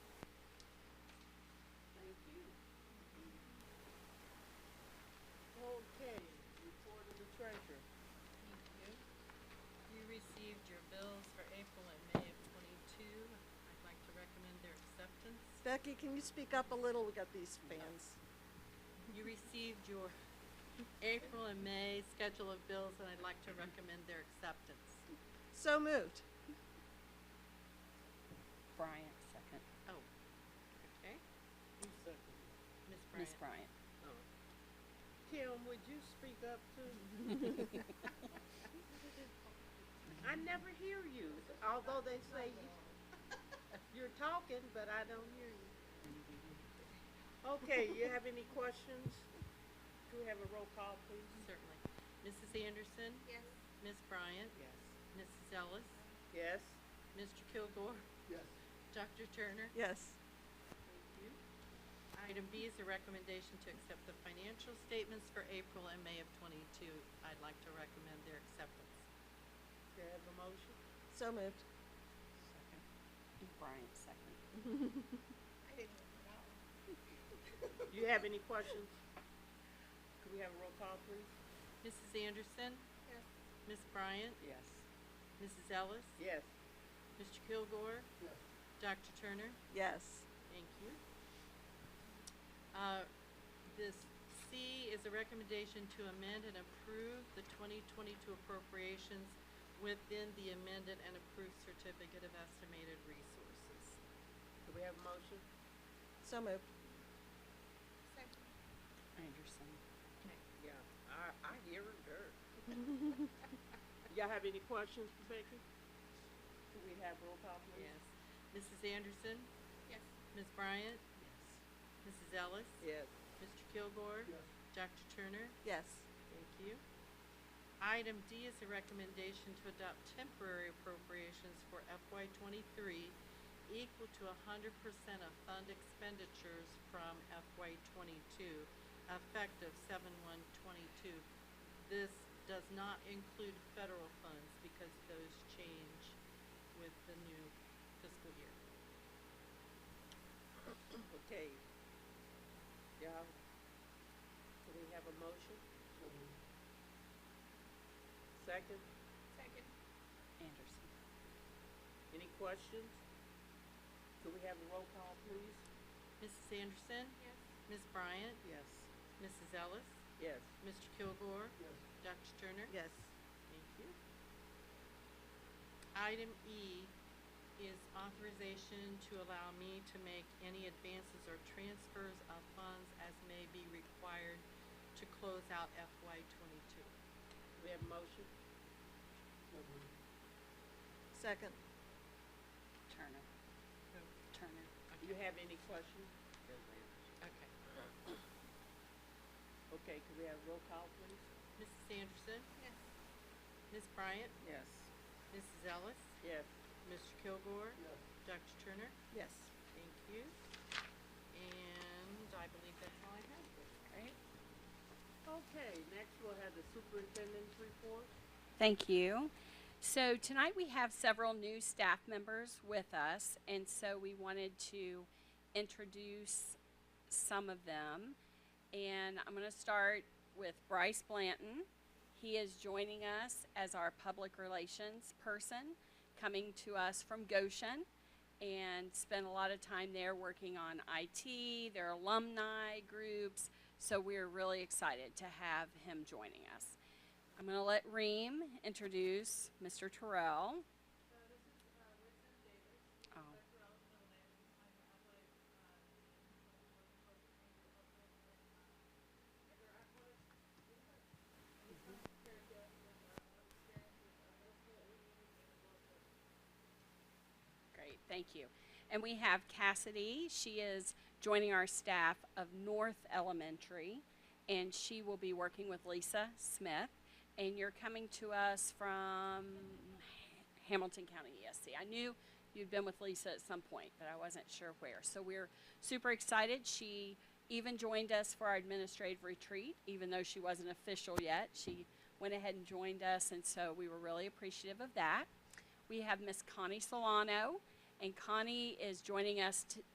received your bills for April and May of twenty-two. I'd like to recommend their acceptance. Becky, can you speak up a little? We got these fans. You received your April and May schedule of bills, and I'd like to recommend their acceptance. So moved. Bryant, second. Oh, okay. Ms. Bryant. Ms. Bryant. Kim, would you speak up too? I never hear you, although they say you- you're talking, but I don't hear you. Okay, you have any questions? Do we have a roll call, please? Certainly. Mrs. Anderson? Yes. Ms. Bryant? Yes. Mrs. Ellis? Yes? Mr. Kilgore? Yes. Dr. Turner? Yes. Item B is a recommendation to accept the financial statements for April and May of twenty-two. I'd like to recommend their acceptance. Do you have a motion? So moved. Bryant, second. I didn't look it up. Do you have any questions? Could we have a roll call, please? Mrs. Anderson? Yes. Ms. Bryant? Yes. Mrs. Ellis? Yes. Mr. Kilgore? Yes. Dr. Turner? Yes. Thank you. Uh, This C is a recommendation to amend and approve the 2022 appropriations within the amended and approved certificate of estimated resources. Do we have a motion? So moved. Second. Anderson. Yeah, I, I hear her dirt. Y'all have any questions for Becky? Do we have roll call, please? Yes. Mrs. Anderson? Yes. Ms. Bryant? Mrs. Ellis? Yes. Mr. Kilgore? Yes. Dr. Turner? Yes. Thank you. Item D is a recommendation to adopt temporary appropriations for FY twenty-three equal to hundred percent of fund expenditures from FY twenty-two, effective seven one twenty-two. This does not include federal funds because those change with the new fiscal year. Okay. Y'all, do we have a motion? Second, Second. Anderson. any questions? Do we have a roll call, please? Mrs. Anderson? Yes. Ms. Bryant? Yes. Mrs. Ellis? Yes. Mr. Kilgore? Yes. Dr. Turner? Yes. Thank you. Item E is authorization to allow me to make any advances or transfers of funds as may be required to close out FY twenty-two. Do we have a motion? Second. Turner. Turner. Do you have any questions? Okay. Okay, could we have roll call, please? Mrs. Anderson, Yes. Ms. Bryant, Yes. Mrs. Ellis, Yes. Mr. Kilgore, Dr. Turner, Yes. thank you. And I believe that's all I have. Great. Okay, next we'll have the superintendent's report. Thank you. So tonight we have several new staff members with us, and so we wanted to introduce some of them. And I'm going to start with Bryce Blanton. He is joining us as our public relations person, coming to us from Goshen, and spent a lot of time there working on IT, their alumni groups. So we're really excited to have him joining us. I'm going to let Reem introduce Mr. Terrell. Oh. Great, thank you. And we have Cassidy. She is joining our staff of North Elementary, and she will be working with Lisa Smith. And you're coming to us from Hamilton County ESC. I knew you'd been with Lisa at some point, but I wasn't sure where. So we're super excited. She even joined us for our administrative retreat, even though she wasn't official yet. She went ahead and joined us, and so we were really appreciative of that. We have Miss Connie Solano, and Connie is joining us t-